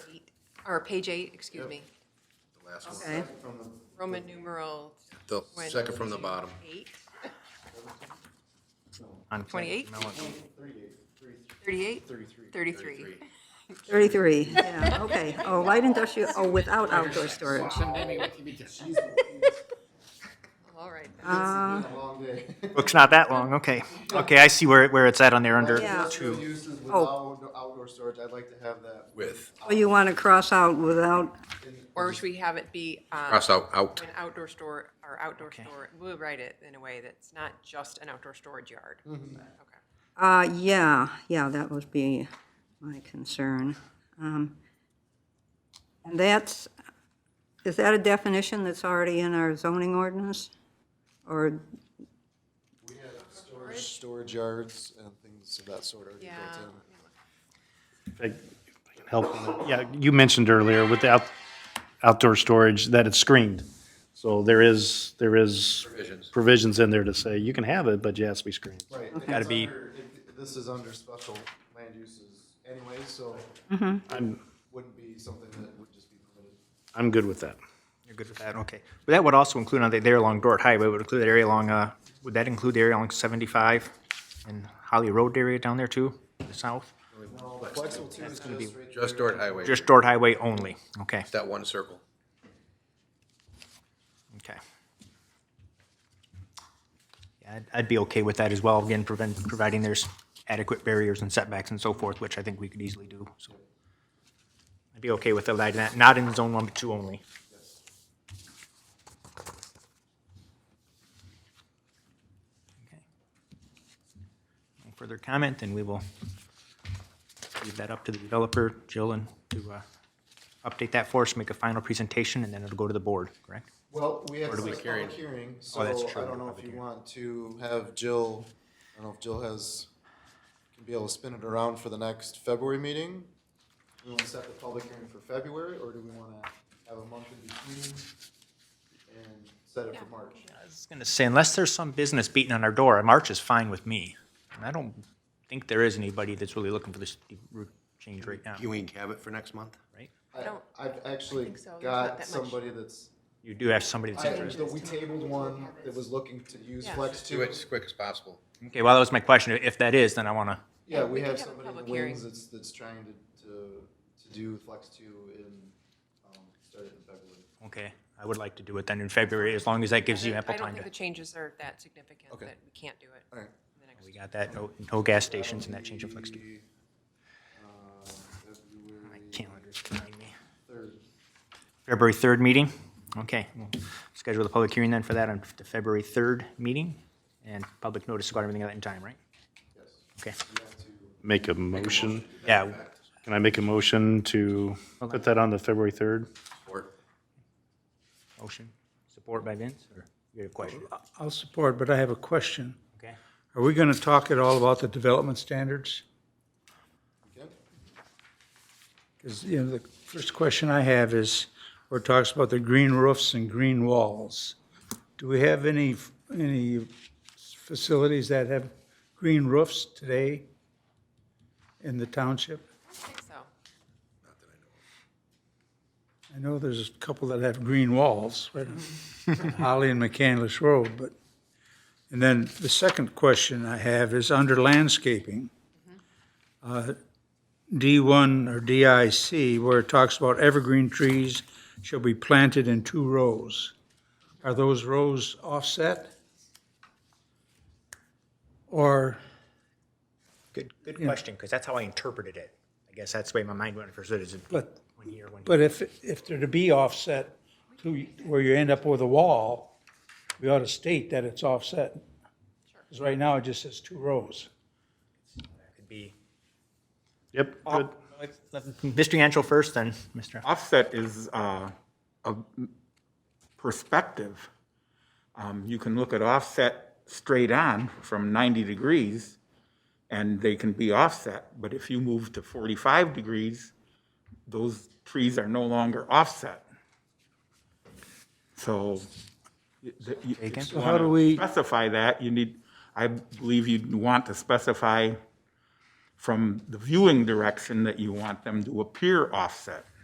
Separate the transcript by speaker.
Speaker 1: or page eight, excuse me,
Speaker 2: The last one.
Speaker 3: Okay.
Speaker 1: Roman numeral.
Speaker 2: The
Speaker 1: twen-
Speaker 2: second from the bottom.
Speaker 1: Eight,
Speaker 4: On second.
Speaker 1: 28?
Speaker 4: No, it's-
Speaker 1: thirty-eight? Thirty-three.
Speaker 3: 33, yeah, okay. Oh, light industrial, oh, without outdoor storage.
Speaker 1: All right. then.
Speaker 3: Uh,
Speaker 4: Book's not that long, okay. Okay, I see where, it- where it's at on there under
Speaker 3: Yeah.
Speaker 5: Industrial
Speaker 4: two.
Speaker 5: uses with
Speaker 3: Oh.
Speaker 5: outdoor outdoor storage, I'd like to have that.
Speaker 2: With,
Speaker 4: Oh,
Speaker 3: Well, oh, you want to cross out without,
Speaker 5: in-
Speaker 1: Or should we have it be, um,
Speaker 2: cross out, out.
Speaker 1: an outdoor store, or outdoor store, we'll write it in a way that's not just an outdoor storage yard.
Speaker 2: Mm-hmm.
Speaker 1: Okay.
Speaker 3: uh, yeah, yeah, that would be my concern. Um, And that's, is that a definition that's already in our zoning ordinance? Or,
Speaker 5: We have storage, storage yards and things of that sort already
Speaker 1: Yeah.
Speaker 5: built in.
Speaker 6: I if I can help. Yeah, you mentioned earlier with the out- outdoor storage that it's screened. So there is, there is provisions in there to say you can have it, but you have to be screened.
Speaker 5: Right. and
Speaker 4: Gotta
Speaker 5: it's
Speaker 4: be-
Speaker 5: under- it- This is under special land uses anyway, so
Speaker 4: Mm-hmm.
Speaker 6: I'm,
Speaker 5: wouldn't be something that would just be permitted.
Speaker 6: I'm good with that.
Speaker 4: You're good with that, okay. But that would also include on the, there along Dort Highway, would include that area along, uh, would that include the area along seventy-five and Holly Road area down there too, to the south?
Speaker 5: No, flexible two is just right
Speaker 2: Just Dort Highway,
Speaker 4: Just Dort Highway only, okay,
Speaker 2: that one circle.
Speaker 4: okay. Yeah, I'd, I'd be okay with that as well, again, prevent, providing there's adequate barriers and setbacks and so forth, which I think we could easily do, so. I'd be okay with allowing that, not in zone one, but two only. Okay. No further comment, then we will leave that up to the developer, Jill, and to uh, update that for us, make a final presentation, and then it'll go to the board, correct?
Speaker 5: Well, we have
Speaker 2: do
Speaker 5: to
Speaker 2: we
Speaker 5: set a
Speaker 2: carry it? Oh,
Speaker 5: public hearing, so I
Speaker 4: that's true,
Speaker 5: don't know
Speaker 4: public
Speaker 5: if you
Speaker 4: hearing.
Speaker 5: want to have Jill, I don't know if Jill has, can be able to spin it around for the next February meeting. Do we want to set the public hearing for February, or do we want to have a month in between and set it for March?
Speaker 4: I was gonna say, unless there's some business beating on our door, March is fine with me. And I don't think there is anybody that's really looking for this route change right now,
Speaker 2: we have it for next month?
Speaker 4: right?
Speaker 5: I-
Speaker 1: don't-
Speaker 5: I've actually
Speaker 1: think so. There's not
Speaker 5: got
Speaker 1: that much.
Speaker 5: somebody that's,
Speaker 4: You do have somebody that's
Speaker 5: I,
Speaker 4: interested.
Speaker 5: that we tabled one that was looking to use
Speaker 1: Yeah.
Speaker 5: Flex
Speaker 2: Do
Speaker 5: two.
Speaker 2: it as quick as possible.
Speaker 4: Okay, well, that was my question. If that is, then I wanna,
Speaker 5: Yeah, we
Speaker 1: could
Speaker 5: have
Speaker 1: have a
Speaker 5: somebody in the
Speaker 1: public hearing.
Speaker 5: wings that's, that's trying to, to, to do Flex two in, um, start it in February.
Speaker 4: okay, I would like to do it then in February, as long as that gives you ample
Speaker 1: I don't
Speaker 4: time
Speaker 1: think the
Speaker 4: to.
Speaker 1: changes are that significant,
Speaker 5: Okay.
Speaker 1: that we can't do it.
Speaker 5: All right.
Speaker 1: in the next-
Speaker 4: We got that, no, no gas stations and that change of flex.
Speaker 5: That'll
Speaker 4: to-
Speaker 5: be, uh,
Speaker 4: My
Speaker 5: February
Speaker 4: calendar's behind me.
Speaker 5: third.
Speaker 4: February 3rd meeting? Okay, we'll schedule the public hearing then for that on the February 3rd meeting, and public notice got everything at that time, right?
Speaker 5: Yes.
Speaker 4: Okay,
Speaker 5: We have to-
Speaker 6: Make a motion.
Speaker 4: yeah,
Speaker 6: Can I make a motion to put that on the February 3rd?
Speaker 2: Or
Speaker 4: motion, support by Vince, or you have a question?
Speaker 7: I'll support, but I have a question.
Speaker 4: Okay.
Speaker 7: Are we going to talk at all about the development standards?
Speaker 5: Okay.
Speaker 7: Because, you know, the first question I have is, where it talks about the green roofs and green walls. Do we have any, any facilities that have green roofs today in the township?
Speaker 1: I think so.
Speaker 7: I know there's a couple that have green walls, right on Holly and McCandless Road, but, and then the second question I have is under landscaping.
Speaker 4: Mm-hmm.
Speaker 7: uh, D1 or DIC, where it talks about evergreen trees shall be planted in two rows. Are those rows offset? Or,
Speaker 4: Good, good question, because that's how I interpreted it. I guess that's the way my mind went first, it is one
Speaker 7: but
Speaker 4: year, one.
Speaker 7: But if, if they're to be offset to where you end up with a wall, we ought to state that it's offset. Because right now it just says two rows.
Speaker 4: Could be.
Speaker 6: Yep, good.
Speaker 4: Mr. Yancho first, then Mr.
Speaker 8: offset is uh, a perspective. Um, You can look at offset straight on from 90 degrees, and they can be offset. But if you move to 45 degrees, those trees are no longer offset. So you- the- you- if you
Speaker 7: So how do
Speaker 8: wanna
Speaker 7: we-
Speaker 8: specify that, you need, I believe you'd want to specify from the viewing direction that you want them to appear offset.